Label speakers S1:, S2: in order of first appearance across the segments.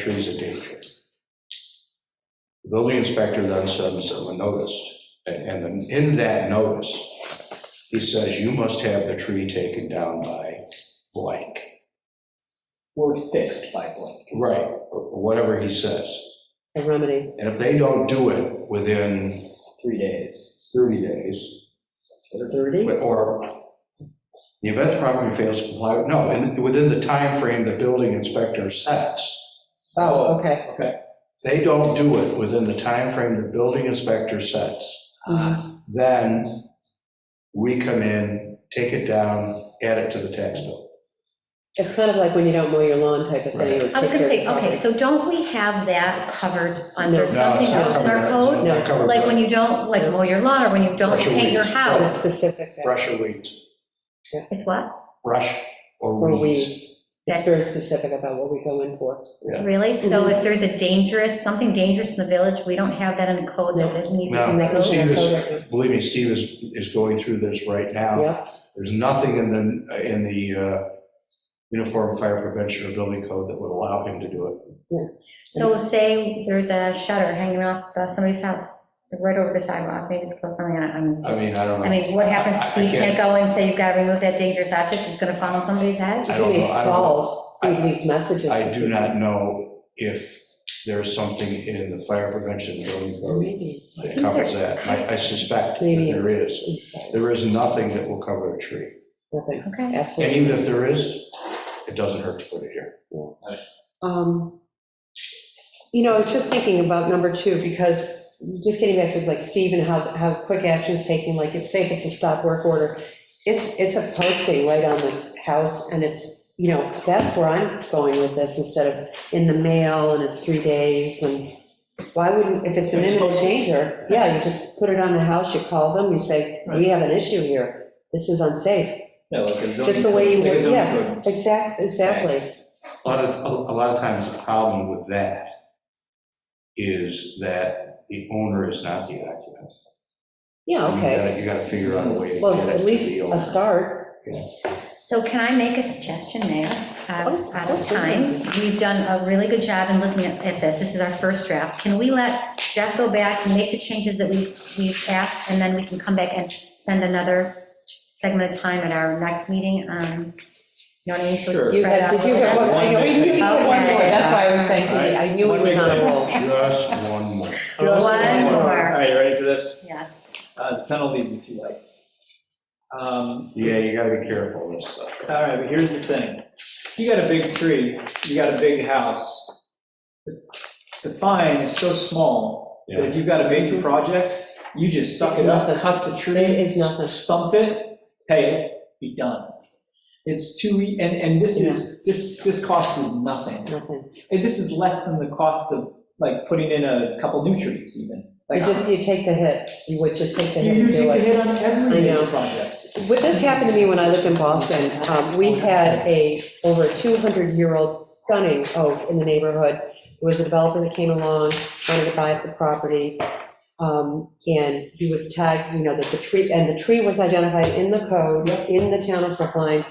S1: trees in danger. The Building inspector then sends them a notice, and and in that notice, he says, you must have the tree taken down by blank.
S2: were fixed by blank.
S1: Right, or whatever he says.
S3: a remedy.
S1: And if they don't do it within
S2: three days.
S1: 30 days,
S2: Is it 30?
S3: 30?
S1: or the event the property fails to comply, no, and within the time frame the building inspector sets,
S3: Oh, okay.
S2: Okay.
S1: they don't do it within the time frame the building inspector sets,
S3: Mhm.
S1: then we come in, take it down, add it to the tax bill.
S3: It's kind of like when you don't mow your lawn type of thing.
S1: Right.
S3: or
S4: I was gonna say,
S3: kick your-
S4: okay, so don't we have that covered
S3: No.
S4: under
S1: No,
S4: something
S1: it's not
S4: else in our
S1: covered,
S4: code?
S1: it's not covered.
S4: Like when you don't, like mow your lawn, or when you don't
S1: Brush your
S4: paint your
S1: weeds.
S3: Or
S4: house?
S3: Specific, uh,
S1: Brush or weeds,
S4: It's what?
S1: brush or
S3: or
S1: weeds.
S3: weeds. It's very specific about what we go in for.
S1: Yeah.
S4: Really? So
S3: Mhm.
S4: if there's a dangerous, something dangerous in the village, we don't have that in the code that it needs to
S1: No.
S4: be
S3: That goes in
S1: see
S3: the
S4: noted?
S3: code
S1: this-
S3: right
S1: Believe me, Steve is, is going through this right
S3: now.
S1: now.
S3: Yep.
S1: There's nothing in the, in the uh, Uniform Fire Prevention or Building Code that would allow him to do it.
S4: So say there's a shutter hanging off uh, somebody's house, it's right over the sidewalk, maybe it's close something, I'm
S1: I
S4: just,
S1: mean, I don't
S4: I
S1: know.
S4: mean, what happens,
S1: I- I
S4: so you
S1: can't-
S4: can't go and say you've gotta remove that dangerous object, it's gonna fall on somebody's head?
S1: I don't
S3: He
S1: know, I don't know.
S3: installs, he leaves messages.
S1: I
S3: to
S1: do
S3: people.
S1: not know if there's something in the Fire Prevention Building
S3: Or
S1: Code
S3: Maybe.
S1: that covers that. I I suspect that
S3: Maybe.
S1: there is. There is nothing that will cover a tree.
S3: Nothing,
S4: Okay,
S1: And
S3: absolutely.
S1: even if there is, it doesn't hurt to put it here.
S3: Um, You know, I was just thinking about number two, because just getting back to like Steve and how, how quick action's taking, like, if, say if it's a stop work order, it's, it's a posting right on the house, and it's, you know, that's where I'm going with this, instead of in the mail, and it's three days, and why wouldn't, if it's an imminent danger, yeah, you just put it on the house, you call them, you say, we have an issue here, this is unsafe.
S2: Yeah, like a zoning
S3: Just the way you
S2: code- like a
S3: would-
S2: zoning
S3: yeah,
S2: code.
S3: Exactly, exactly.
S1: A lot of, a lot of times, the problem with that is that the owner is not the occupant.
S3: Yeah, okay.
S1: You gotta- You gotta figure out a way to
S3: Well,
S1: get
S3: it's
S1: it
S3: at
S1: to
S3: least
S1: the
S3: a
S1: owner.
S3: start.
S4: So can I make a suggestion, Mayor?
S3: Oh,
S4: Um, Out of
S3: absolutely.
S4: time, we've done a really good job in looking at at this. This is our first draft. Can we let Jeff go back and make the changes that we- we've asked, and then we can come back and spend another segment of time at our next meeting? um, You know what I mean? So we can
S2: Sure.
S3: You
S4: spread
S3: had,
S4: out
S3: did
S4: a
S3: you
S4: little
S3: have,
S4: bit.
S3: one- I know, we knew you had one more, that's why I was saying,
S2: Okay.
S3: I knew he was on a roll.
S1: Just one more.
S2: Just
S4: One
S2: All
S4: more,
S2: right, you ready for this?
S4: yes.
S2: Uh, Penalties, if you like. Um,
S1: Yeah, you gotta be careful with this stuff.
S2: All right, but here's the thing. If you got a big tree, you got a big house, the fine is so small that if you've got a major project, you just suck
S3: It's
S2: it up,
S3: nothing.
S2: cut the tree.
S3: It is nothing.
S2: Stump it, pay it, be done. It's too, e- and, and this is, this, this cost is nothing.
S3: Nothing.
S2: And this is less than the cost of, like, putting in a couple new trees even.
S3: You
S2: Like,
S3: just, you take the hit, you would just take the
S2: You
S3: hit and
S2: you take
S3: do
S2: a
S3: it.
S2: hit on every
S3: I know.
S2: major project.
S3: What this happened to me when I lived in Boston, um, we had a over 200-year-old stunning oak in the neighborhood. There was a developer that came along, wanted to buy up the property, um, and he was tagged, you know, that the tree, and the tree was identified in the code, in the town of Brookline.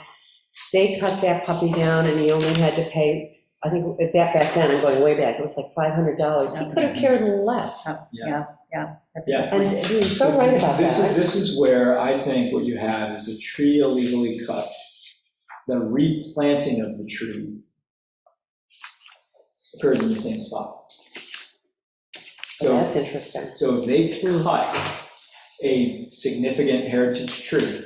S3: They cut that puppy down, and he only had to pay, I think, back back then, I'm going way back, it was like $500. He could have cared less,
S4: Oh, Yeah, yeah. that's a good
S2: Yeah.
S3: and he was so right about
S2: This is,
S3: that.
S2: this is where I think what you have is a tree illegally cut, the replanting of the tree occurs in the same spot. So,
S3: That's interesting.
S2: so if they cut a significant heritage tree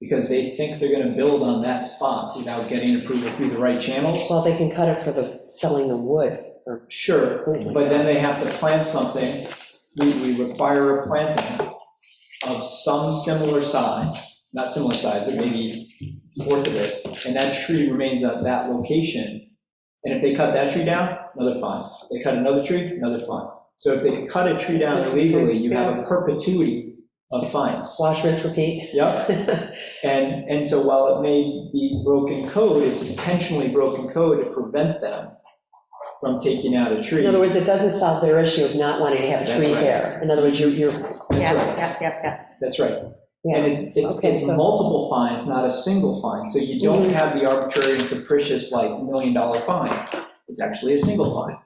S2: because they think they're gonna build on that spot without getting approval through the right channels,
S3: Well, they can cut it for the, selling the wood. or-
S2: sure, But then they have to plant something, we, we require a planting of some similar size, not similar size, but maybe fourth of it, and that tree remains at that location. And if they cut that tree down, another fine, they cut another tree, another fine. So if they cut a tree down illegally, you have a perpetuity of fines.
S3: Wash, rinse, repeat.
S2: Yep, and, and so while it may be broken code, it's intentionally broken code to prevent them from taking out a tree.
S3: In other words, it doesn't solve their issue of not wanting to have a
S2: That's
S3: tree
S2: right.
S3: there. In other words, you're, you're,
S2: That's
S4: Yeah,
S2: right.
S4: yeah, yeah,
S2: That's right. And
S3: yeah,
S2: it's, it's
S3: Okay,
S2: it's
S3: so- Mm-hmm.
S2: multiple fines, not a single fine. So you don't have the arbitrary and capricious, like, million-dollar fine. It's actually a single line.